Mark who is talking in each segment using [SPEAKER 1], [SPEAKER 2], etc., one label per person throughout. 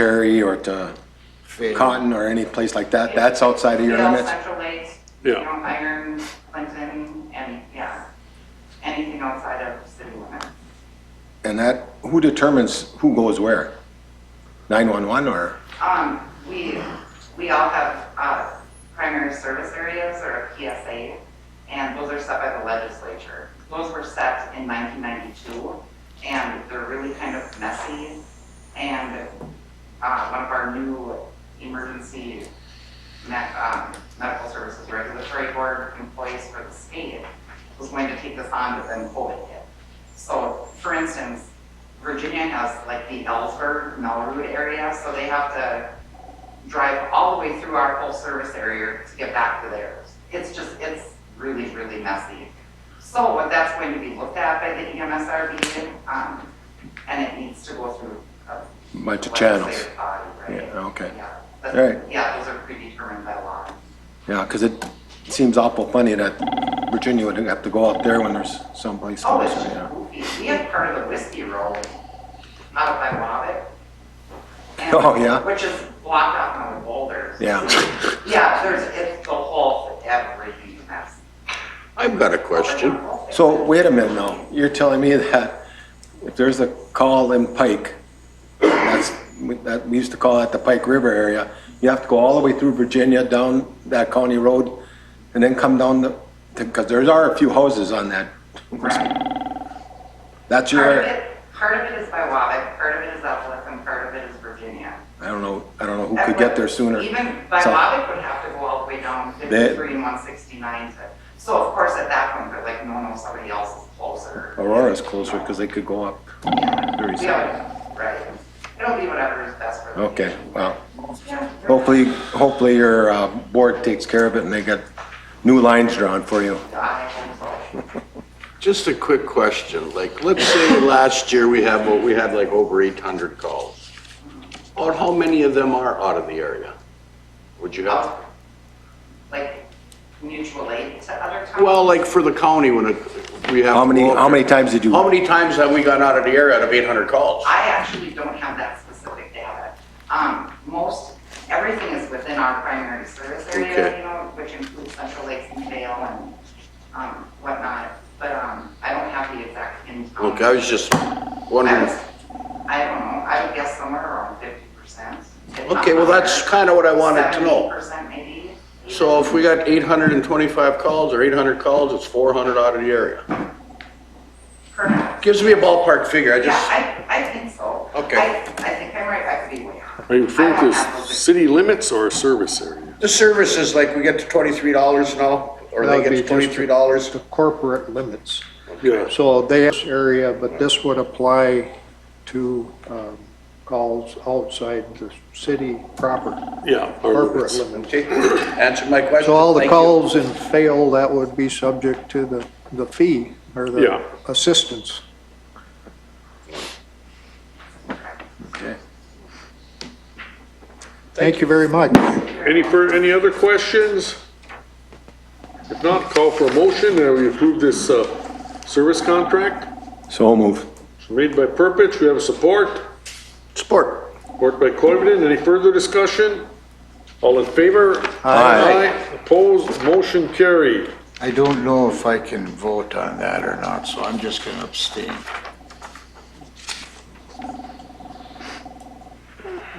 [SPEAKER 1] Cherry or to
[SPEAKER 2] Fair.
[SPEAKER 1] Cotton or any place like that, that's outside of your
[SPEAKER 3] Sales,
[SPEAKER 1] limits?
[SPEAKER 3] Central Lakes,
[SPEAKER 4] Yeah.
[SPEAKER 3] you know, Iron, Clinton, and, yeah, anything outside of city limits.
[SPEAKER 1] And that, who determines who goes where? 911 or,
[SPEAKER 3] Um, we, we all have, uh, primary service areas or a PSA, and those are set by the legislature. Those were set in nineteen ninety-two, and they're really kind of messy. And, uh, one of our new emergency me- um, medical services regulatory board employees for the state was going to take this on, but then COVID hit. So, for instance, Virginia has like the Ellsberg, Melroot area, so they have to drive all the way through our whole service area to get back to theirs. It's just, it's really, really messy. So what that's going to be looked at by the E EMSRB, um, and it needs to go through a
[SPEAKER 1] bunch of channels?
[SPEAKER 3] legislative body, right?
[SPEAKER 1] Yeah, okay.
[SPEAKER 3] Yeah. But,
[SPEAKER 1] All right.
[SPEAKER 3] Yeah, those are predetermined by law.
[SPEAKER 1] Yeah, because it seems awful funny that Virginia would have to go out there when there's someplace
[SPEAKER 3] Oh,
[SPEAKER 1] closer,
[SPEAKER 3] it's
[SPEAKER 1] you know?
[SPEAKER 3] goofy. We have part of the whiskey roll out by Wabbit. And-
[SPEAKER 1] Oh, yeah?
[SPEAKER 3] Which is blocked off on the boulders.
[SPEAKER 1] Yeah.
[SPEAKER 3] Yeah, there's, it's the whole, everything Oh, that's.
[SPEAKER 2] I've got a question.
[SPEAKER 1] So wait a minute now, you're telling me that if there's a call in Pike, that's, that, we used to call that the Pike River area, you have to go all the way through Virginia, down that county road, and then come down the, because there are a few houses on that.
[SPEAKER 3] Right.
[SPEAKER 1] That's
[SPEAKER 3] Part
[SPEAKER 1] your,
[SPEAKER 3] of it, part of it is by Wabbit, part of it is Evelyn, and part of it is Virginia.
[SPEAKER 1] I don't know, I don't know who
[SPEAKER 3] That
[SPEAKER 1] could get
[SPEAKER 3] would-
[SPEAKER 1] there sooner.
[SPEAKER 3] Even by
[SPEAKER 1] So-
[SPEAKER 3] Wabbit would have to go all the way down fifty-three and one sixty-nine to, so of course at that point, they're like, no, no, somebody else is closer.
[SPEAKER 1] Aurora's closer because they could go up. Very soon.
[SPEAKER 3] Yeah, right. It'll be whatever is best for them.
[SPEAKER 1] Okay, well,
[SPEAKER 3] Yeah.
[SPEAKER 1] hopefully, hopefully your uh, board takes care of it and they get new lines drawn for you.
[SPEAKER 3] I hope so.
[SPEAKER 2] Just a quick question, like, let's say last year we have, we had like over eight hundred calls. Or how many of them are out of the area? Would you have?
[SPEAKER 3] Well, um, Like mutual aid to other towns?
[SPEAKER 2] Well, like for the county when it, we have.
[SPEAKER 1] How many, how many times did you?
[SPEAKER 2] How many times have we gone out of the area out of eight hundred calls?
[SPEAKER 3] I actually don't have that specific data. Um, most, everything is within our primary service area,
[SPEAKER 2] Okay.
[SPEAKER 3] you know, which includes Central Lakes and Vale and, um, whatnot. But, um, I don't have the exact in. um,
[SPEAKER 2] Okay, I was just
[SPEAKER 3] I
[SPEAKER 2] wondering.
[SPEAKER 3] was- I don't know, I would guess somewhere around fifty percent.
[SPEAKER 2] Okay, well, that's kinda what I wanted to know.
[SPEAKER 3] Percent maybe.
[SPEAKER 2] So if we got eight hundred and twenty-five calls or eight hundred calls, it's four hundred out of the area.
[SPEAKER 3] Correct.
[SPEAKER 2] Gives me a ballpark figure, I
[SPEAKER 3] Yeah,
[SPEAKER 2] just,
[SPEAKER 3] I, I think so.
[SPEAKER 2] Okay.
[SPEAKER 3] I, I think I'm right, I could be way off.
[SPEAKER 4] Are you
[SPEAKER 3] I
[SPEAKER 4] referring
[SPEAKER 3] don't
[SPEAKER 4] to
[SPEAKER 3] have those ex-
[SPEAKER 4] city limits or service area?
[SPEAKER 2] the services, like we get to twenty-three dollars now, or
[SPEAKER 5] That
[SPEAKER 2] they
[SPEAKER 5] would
[SPEAKER 2] get
[SPEAKER 5] be
[SPEAKER 2] to twenty-three dollars.
[SPEAKER 5] The corporate limits.
[SPEAKER 4] Yes.
[SPEAKER 5] So they have this area, but this would apply to um, calls outside the city proper,
[SPEAKER 4] Yeah. our
[SPEAKER 5] corporate
[SPEAKER 4] limits.
[SPEAKER 5] limits.
[SPEAKER 2] Okay, answer my question.
[SPEAKER 5] So all the
[SPEAKER 2] Thank you.
[SPEAKER 5] calls in fail, that would be subject to the, the fee or
[SPEAKER 4] Yeah.
[SPEAKER 5] the assistance.
[SPEAKER 1] Okay.
[SPEAKER 5] Thank you very much.
[SPEAKER 4] Any, fur- any other questions? If not, call for a motion that we approve this uh, service contract.
[SPEAKER 1] So move.
[SPEAKER 4] It's Made by Purpich, we have support.
[SPEAKER 2] Support.
[SPEAKER 4] Worked by Coivinon. Any further discussion? All in favor?
[SPEAKER 1] Aye.
[SPEAKER 4] Opposed? Motion carried.
[SPEAKER 6] I don't know if I can vote on that or not, so I'm just gonna abstain.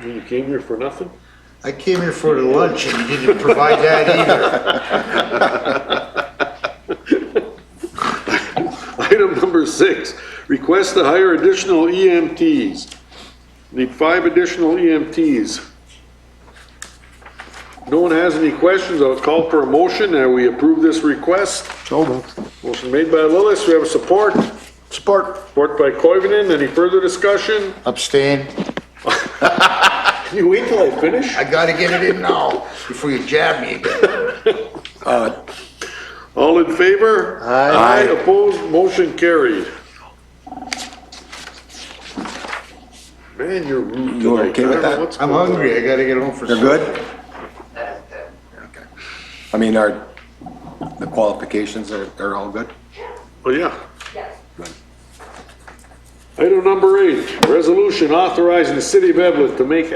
[SPEAKER 4] You came here for nothing?
[SPEAKER 6] I came here for the lunch and you didn't provide that either.
[SPEAKER 4] Item number six, request to hire additional EMTs. Need five additional E EMTs. No one has any questions, I'll call for a motion that we approve this request.
[SPEAKER 5] So moved.
[SPEAKER 4] Motion made by Lillis, we have support.
[SPEAKER 6] Support.
[SPEAKER 4] Support by Koivunen, any further discussion?
[SPEAKER 6] Abstain.
[SPEAKER 4] Can you wait till I finish?
[SPEAKER 6] I gotta get it in now before you jab me again.
[SPEAKER 1] Uh,
[SPEAKER 4] All in favor?
[SPEAKER 6] Aye.
[SPEAKER 4] opposed, motion carried. Man, you're rude
[SPEAKER 1] You
[SPEAKER 4] tonight.
[SPEAKER 1] okay
[SPEAKER 4] I
[SPEAKER 1] with
[SPEAKER 4] don't know
[SPEAKER 1] that?
[SPEAKER 4] what's
[SPEAKER 6] I'm
[SPEAKER 4] going on.
[SPEAKER 6] hungry, I gotta get home for.
[SPEAKER 1] You're good?
[SPEAKER 3] That is good.
[SPEAKER 1] I mean, are, the qualifications are, are all good?
[SPEAKER 4] Oh, yeah. Item number eight, resolution authorizing the city of Evelyn to make